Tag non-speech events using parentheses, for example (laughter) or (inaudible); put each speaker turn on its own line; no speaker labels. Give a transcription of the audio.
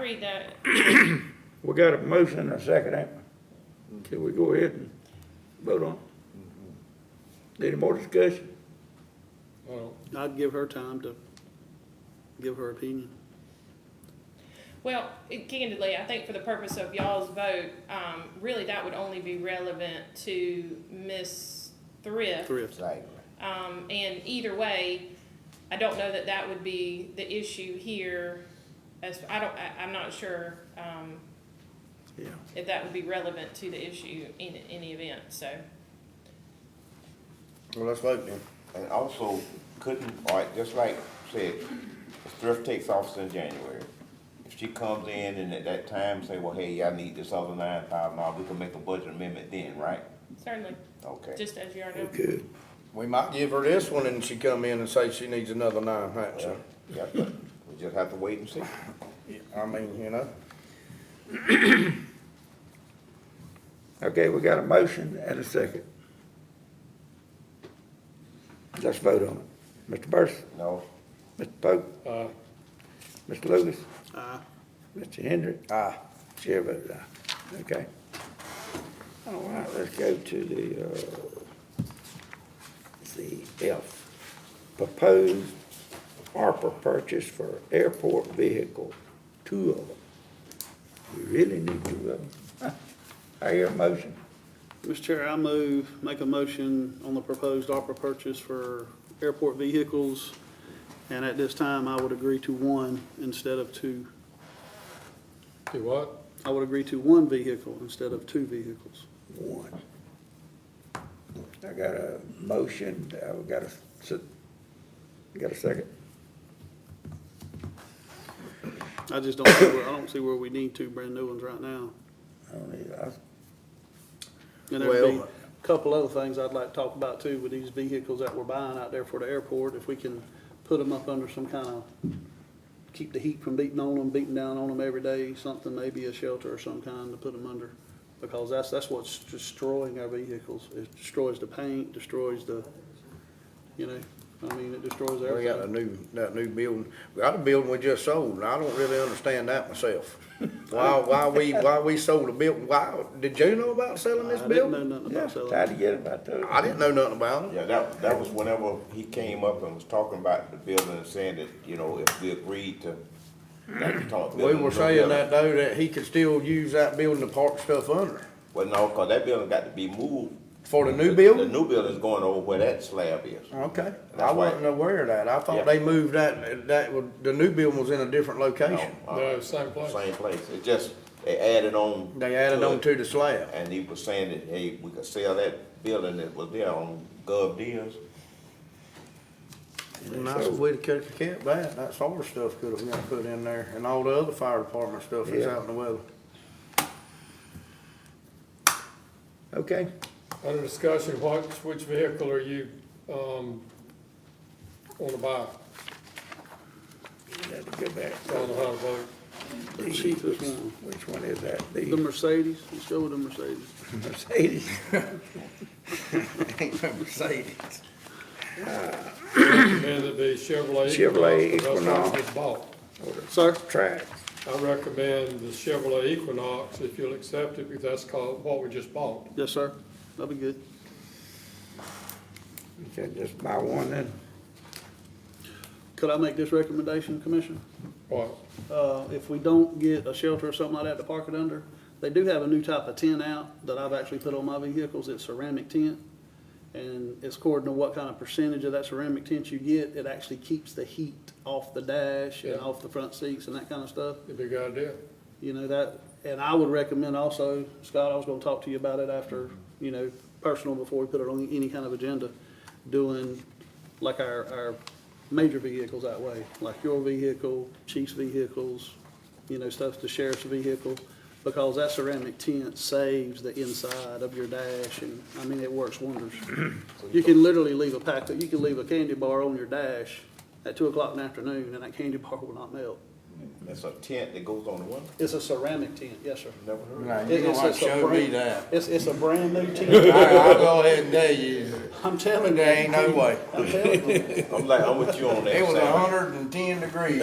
read that,
We got a motion and a second, ain't we? Can we go ahead and vote on it? Any more discussion?
Well,
I'd give her time to give her opinion.
well, it- candidly, I think for the purpose of y'all's vote, um, really that would only be relevant to Miss Thrift.
Thrift,
Right.
Um, and either way, I don't know that that would be the issue here, as, I don't, I, I'm not sure, um,
Yeah.
if that would be relevant to the issue in any event, so.
Well, let's vote then. And also, couldn't, all right, just like said, if thrift takes office in January, if she comes in and at that time say, well, hey, I need this other nine thousand dollars, we can make a budget amendment then, right?
Certainly,
Okay.
just as you are now.
We could.
We might give her this one and she come in and say she needs another nine
Well,
hundred.
Yeah, but we just have to wait and see.
I mean, you know,
Okay, we got a motion and a second. Let's vote on it. Mr. Burson,
No,
Mr. Pope,
uh,
Mr. Lucas,
aye.
Mr. Hendrick,
aye.
chair votes aye. Okay. All right, let's go to the, uh, the F. Proposed ARPA purchase for airport vehicle, two of them. We really need two of them. (laughs) I hear a motion.
Mr. Chair, I move, make a motion on the proposed ARPA purchase for airport vehicles. And at this time, I would agree to one instead of two.
do what?
I would agree to one vehicle instead of two vehicles.
one. I got a motion, I've got a, s- got a second.
I just don't, see where- I don't see where we need two brand new ones right now.
I don't need, I,
And there'd be a
Well-
couple other things I'd like to talk about too with these vehicles that we're buying out there for the airport. If we can put them up under some kind of, keep the heat from beating on them, beating down on them every day, something, maybe a shelter or some kind to put them under. Because that's, that's what's destroying our vehicles. It destroys the paint, destroys the, you know, I mean, it destroys
We got a
everything.
new, that new building, we got a building we just sold, and I don't really understand that myself. Why, why we, why we sold a building, why, did you know about selling this
I didn't know
building?
nothing
yeah,
about
tried
selling.
to get about those.
I didn't know nothing about it.
yeah, that, that was whenever he came up and was talking about the building and saying that, you know, if we agreed to, that we talked.
We were saying that though, that he could still use that building to park stuff under,
Well, no, cause that building got to be moved.
for the new
The
building?
new building's going over where that slab is.
Okay, I
That's why-
wasn't aware of that, I
Yeah.
thought they moved that, that, was- the new building was in a different location.
No, uh,
No, same place.
Same place, it just, they added on.
They added on
it.
to the slab.
And he was saying that, hey, we could sell that building that was there on Gov Deals.
Nice if we'd have kept that, that solar stuff could have got put in there, and all the other fire department stuff that's
Yeah.
out in the weather.
Okay,
Under discussion, what, which vehicle are you, um, wanna buy?
we had to go back.
I don't know how to vote.
The cheapest one.
Which one is that?
The
The
Mercedes, let's go with the Mercedes.
Mercedes?
(laughs)
(laughs)
Ain't no Mercedes.
Recommend it be Chevrolet.
Chevrolet
That's what
Equinox.
gets bought.
Sir?
Track.
I recommend the Chevrolet Equinox, if you'll accept it, because that's called, what we just bought.
Yes, sir. That'd be good.
Okay, just buy one then.
Could I make this recommendation, Commissioner?
What,
Uh, if we don't get a shelter or something like that to park it under, they do have a new type of tent out that I've actually put on my vehicles. It's ceramic tent. And it's according to what kind of percentage of that ceramic tent you get, it actually keeps the heat off the dash and
Yeah.
off the front seats and that kind of stuff.
it'd be a good idea.
You know, that, and I would recommend also, Scott, I was gonna talk to you about it after, you know, personal, before we put it on any kind of agenda, doing like our, our major vehicles that way, like your vehicle, chief's vehicles, you know, stuff, the sheriff's vehicle, because that ceramic tent saves the inside of your dash, and, I mean, it works wonders. You can literally leave a pack, you can leave a candy bar on your dash at two o'clock in the afternoon, and that candy bar will not melt.
That's a tent that goes on the one,
It's a ceramic tent, yes, sir.
never heard of it.
Nah,
It-
you don't
it's-
have
it's
to
a
show me
brand-
that.
It's, it's a brand
(laughs)
new tent.
I, will go ahead and tell you,
I'm telling you.
there ain't no way.
I'm telling you.
I'm like, I'm with you on that.
It was
Sam.
hundred and ten degrees.